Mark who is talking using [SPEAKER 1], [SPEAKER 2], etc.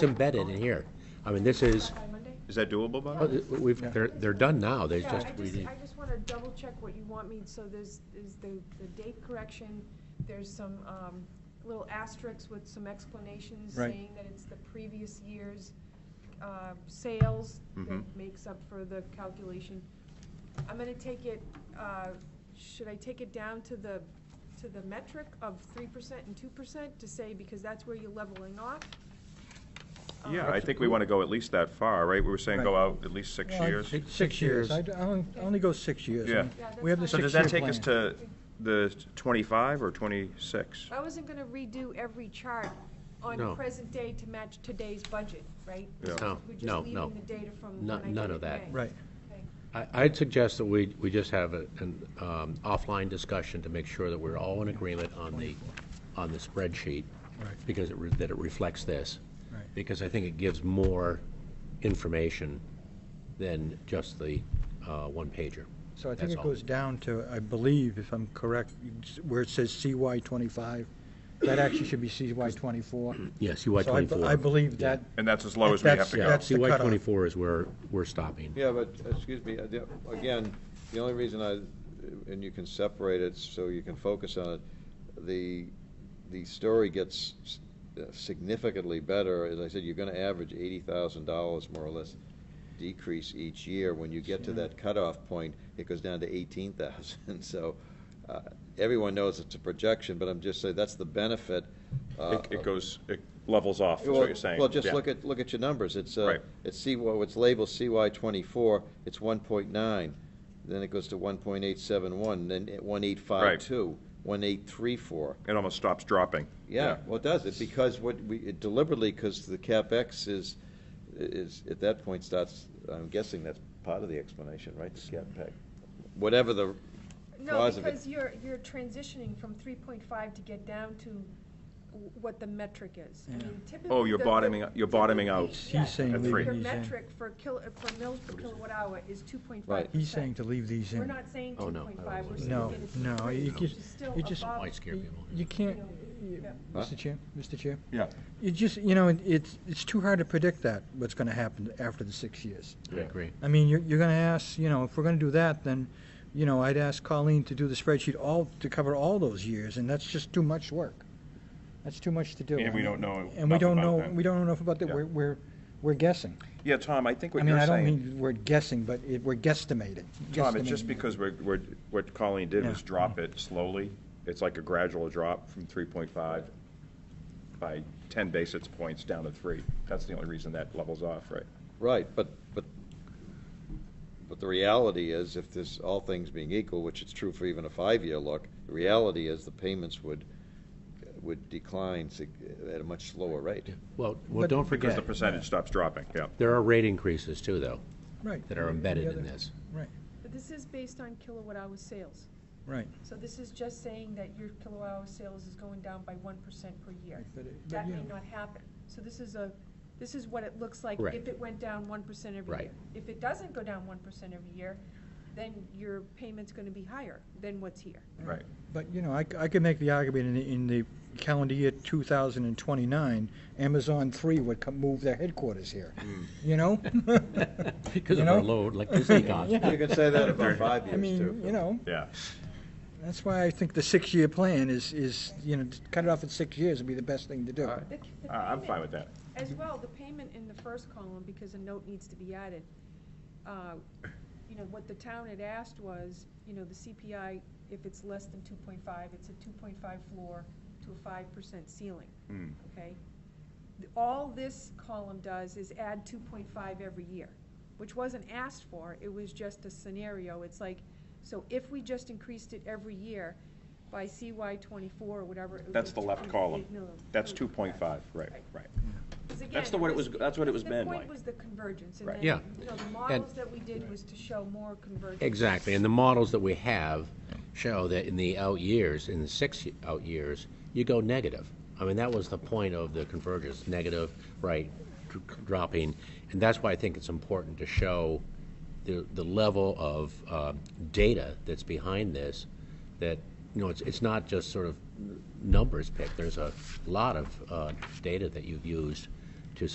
[SPEAKER 1] embedded in here. I mean, this is,
[SPEAKER 2] By Monday?
[SPEAKER 3] Is that doable, Bob?
[SPEAKER 1] oh, we've, they're, they're done now, they
[SPEAKER 2] Yeah,
[SPEAKER 1] just,
[SPEAKER 2] I
[SPEAKER 1] we
[SPEAKER 2] just,
[SPEAKER 1] need,
[SPEAKER 2] I just wanna double check what you want me, so there's, is the, the date correction, there's some, um, little asterisks with some explanations
[SPEAKER 4] Right.
[SPEAKER 2] saying that it's the previous year's, uh, sales that
[SPEAKER 1] Mm-hmm.
[SPEAKER 3] Mhm.
[SPEAKER 2] makes up for the calculation. I'm gonna take it, uh, should I take it down to the, to the metric of three percent and two percent to say, because that's where you're leveling off?
[SPEAKER 3] Yeah, I think we want to go at least that far, right? We were saying go
[SPEAKER 4] Right.
[SPEAKER 3] out at least six
[SPEAKER 4] Well,
[SPEAKER 3] years.
[SPEAKER 4] Six six years. I d- I only I only go six years.
[SPEAKER 3] Yeah.
[SPEAKER 4] I mean,
[SPEAKER 2] Yeah, that's
[SPEAKER 4] We have
[SPEAKER 2] fine.
[SPEAKER 4] the
[SPEAKER 3] So does
[SPEAKER 4] six-year
[SPEAKER 3] that take us
[SPEAKER 4] plan.
[SPEAKER 3] to the 25 or 26?
[SPEAKER 2] I wasn't gonna redo every chart on
[SPEAKER 1] No.
[SPEAKER 2] present day to match today's budget, right?
[SPEAKER 3] Yeah.
[SPEAKER 1] No,
[SPEAKER 2] We're
[SPEAKER 1] no,
[SPEAKER 2] just
[SPEAKER 1] no.
[SPEAKER 2] leaving the data from
[SPEAKER 1] No-
[SPEAKER 2] when I
[SPEAKER 1] none
[SPEAKER 2] did
[SPEAKER 1] of
[SPEAKER 2] it in
[SPEAKER 1] that.
[SPEAKER 2] May.
[SPEAKER 4] Right.
[SPEAKER 2] Okay.
[SPEAKER 1] I, I'd suggest that we, we just have a- an um, offline discussion to make sure that we're all in agreement on the, on the spreadsheet.
[SPEAKER 4] Right.
[SPEAKER 1] Because it, re- that it reflects this.
[SPEAKER 4] Right.
[SPEAKER 1] Because I think it gives more information than just the uh, one pager.
[SPEAKER 4] So I
[SPEAKER 1] That's
[SPEAKER 4] think it
[SPEAKER 1] all.
[SPEAKER 4] goes down to, I believe, if I'm correct, it's where it says CY twenty-five, that actually should be CY twenty-four.
[SPEAKER 1] Yeah, CY
[SPEAKER 4] So I b-
[SPEAKER 1] twenty-four.
[SPEAKER 4] I believe that,
[SPEAKER 3] And that's as low as we have to
[SPEAKER 4] Yeah,
[SPEAKER 3] go.
[SPEAKER 4] that's the
[SPEAKER 1] CY
[SPEAKER 4] cutoff.
[SPEAKER 1] twenty-four is where we're stopping.
[SPEAKER 5] Yeah, but, excuse me, uh, the- again, the only reason I, and you can separate it so you can focus on it, the, the story gets s- uh, significantly better. As I said, you're gonna average eighty thousand dollars more or less decrease each year. When you get to that cutoff point, it goes down to eighteen thousand. So, uh, everyone knows it's a projection, but I'm just saying, that's the benefit. uh,
[SPEAKER 3] It- It
[SPEAKER 5] of-
[SPEAKER 3] goes, it levels off, is what you're saying.
[SPEAKER 5] well, just
[SPEAKER 3] Yeah.
[SPEAKER 5] look at, look at your numbers. It's, uh,
[SPEAKER 3] Right.
[SPEAKER 5] it's C, well, it's labeled CY twenty-four, it's one point nine. Then it goes to one point eight seven one, then one eight five two, one eight three four.
[SPEAKER 3] It almost stops dropping.
[SPEAKER 5] Yeah, well, it does, it, because what we, it deliberately, because the CapEx is, is, at that point starts, I'm guessing that's part of the explanation, right? The CapEx, whatever the
[SPEAKER 2] No,
[SPEAKER 5] cause of it.
[SPEAKER 2] because you're, you're transitioning from three point five to get down to w- what the metric is. I
[SPEAKER 4] Yeah.
[SPEAKER 2] mean, typically
[SPEAKER 3] Oh, you're
[SPEAKER 2] the-
[SPEAKER 3] bottoming- you're bottoming
[SPEAKER 2] typically-
[SPEAKER 3] out He's-
[SPEAKER 4] he's saying
[SPEAKER 3] at
[SPEAKER 4] leave
[SPEAKER 3] three.
[SPEAKER 4] these
[SPEAKER 2] Your
[SPEAKER 4] in.
[SPEAKER 2] metric for kil, for mils per kilowatt hour is two point five.
[SPEAKER 5] Right.
[SPEAKER 4] He's saying to leave these
[SPEAKER 2] We're
[SPEAKER 4] in.
[SPEAKER 2] not saying
[SPEAKER 1] Oh,
[SPEAKER 2] two
[SPEAKER 1] no.
[SPEAKER 2] point five, we're saying
[SPEAKER 4] No,
[SPEAKER 2] get it to
[SPEAKER 4] no,
[SPEAKER 2] three,
[SPEAKER 4] you
[SPEAKER 2] which
[SPEAKER 4] just-
[SPEAKER 2] is still
[SPEAKER 4] you just-
[SPEAKER 2] above
[SPEAKER 1] Might scare people.
[SPEAKER 4] You can't, you-
[SPEAKER 5] Huh?
[SPEAKER 4] Mr. Chair, Mr. Chair,
[SPEAKER 3] Yeah.
[SPEAKER 4] you just, you know, it- it's, it's too hard to predict that, what's gonna happen after the six years.
[SPEAKER 1] I agree.
[SPEAKER 4] I mean, you're, you're gonna ask, you know, if we're gonna do that, then, you know, I'd ask Colleen to do the spreadsheet all, to cover all those years, and that's just too much work. That's too much to do.
[SPEAKER 3] And we
[SPEAKER 4] I
[SPEAKER 3] don't
[SPEAKER 4] mean,
[SPEAKER 3] know
[SPEAKER 4] And we
[SPEAKER 3] enough
[SPEAKER 4] don't
[SPEAKER 3] about
[SPEAKER 4] know,
[SPEAKER 3] that.
[SPEAKER 4] we don't know enough about that,
[SPEAKER 3] Yeah.
[SPEAKER 4] we're, we're, we're guessing.
[SPEAKER 3] Yeah, Tom, I think
[SPEAKER 4] I
[SPEAKER 3] what
[SPEAKER 4] mean,
[SPEAKER 3] you're
[SPEAKER 4] I don't
[SPEAKER 3] saying,
[SPEAKER 4] mean we're guessing, but it, we're guesstimating.
[SPEAKER 3] Tom, it's
[SPEAKER 4] guesstimating.
[SPEAKER 3] just because we're, we're, what Colleen did
[SPEAKER 4] Yeah.
[SPEAKER 3] was drop it slowly. It's like a gradual drop from 3.5 by 10 basis points down to 3. That's the only reason that levels off, right?
[SPEAKER 5] Right, but, but, but the reality is, if this, all things being equal, which is true for even a five-year look, the reality is the payments would, would decline sig- at a much slower rate.
[SPEAKER 1] Well, well,
[SPEAKER 4] But-
[SPEAKER 1] don't
[SPEAKER 3] Because
[SPEAKER 1] forget,
[SPEAKER 3] the percentage stops dropping, yeah.
[SPEAKER 1] there are rate increases too, though,
[SPEAKER 4] Right.
[SPEAKER 1] that are embedded in this.
[SPEAKER 4] Right,
[SPEAKER 2] But this is based on kilowatt hour sales.
[SPEAKER 4] right.
[SPEAKER 2] So this is just saying that your kilowatt hour sales is going down by one percent per year.
[SPEAKER 4] But it- but
[SPEAKER 2] That may
[SPEAKER 4] yeah.
[SPEAKER 2] not happen. So this is a, this is what it looks like
[SPEAKER 1] Correct.
[SPEAKER 2] if it went down one percent every year.
[SPEAKER 1] Right.
[SPEAKER 2] If it doesn't go down one percent every year, then your payment's gonna be higher than what's here.
[SPEAKER 3] Right.
[SPEAKER 4] But, you know, I, c- I could make the argument in, the- in the calendar year 2029, Amazon 3 would come, move their headquarters here, you know?
[SPEAKER 1] Because
[SPEAKER 4] You
[SPEAKER 1] of our
[SPEAKER 4] know?
[SPEAKER 1] low electricity costs.
[SPEAKER 4] Yeah.
[SPEAKER 5] You can say that about five
[SPEAKER 4] I
[SPEAKER 5] years, too.
[SPEAKER 4] mean, you know,
[SPEAKER 3] Yeah.
[SPEAKER 4] that's why I think the six-year plan is, is, you know, to cut it off at six years would be the best thing to do.
[SPEAKER 2] The c- the
[SPEAKER 3] Uh, I'm fine
[SPEAKER 2] payment-
[SPEAKER 3] with that.
[SPEAKER 2] As well, the payment in the first column, because a note needs to be added, uh, you know, what the town had asked was, you know, the CPI, if it's less than two point five, it's a two point five floor to a five percent ceiling,
[SPEAKER 3] Mm.
[SPEAKER 2] okay? Th- All this column does is add two point five every year, which wasn't asked for, it was just a scenario, it's like, so if we just increased it every year by CY twenty-four or whatever. it would
[SPEAKER 3] That's
[SPEAKER 2] be
[SPEAKER 3] the left
[SPEAKER 2] 2.8
[SPEAKER 3] column.
[SPEAKER 2] million.
[SPEAKER 3] That's 2.5, right, right.
[SPEAKER 2] 'Cause
[SPEAKER 6] That's
[SPEAKER 2] again,
[SPEAKER 6] the what it was- that's what it was meant
[SPEAKER 2] The point
[SPEAKER 6] like.
[SPEAKER 2] was the convergence, and
[SPEAKER 3] Right.
[SPEAKER 2] then,
[SPEAKER 1] Yeah.
[SPEAKER 2] you know, the models that we did was to show more convergence.
[SPEAKER 1] Exactly, and the models that we have show that in the out years, in the six y- out years, you go negative. I mean, that was the point of the convergence, negative, right, dr- dropping, and that's why I think it's important to show the, the level of um, data that's behind this, that, you know, it's, it's not just sort of numbers picked, there's a lot of uh, data that you've used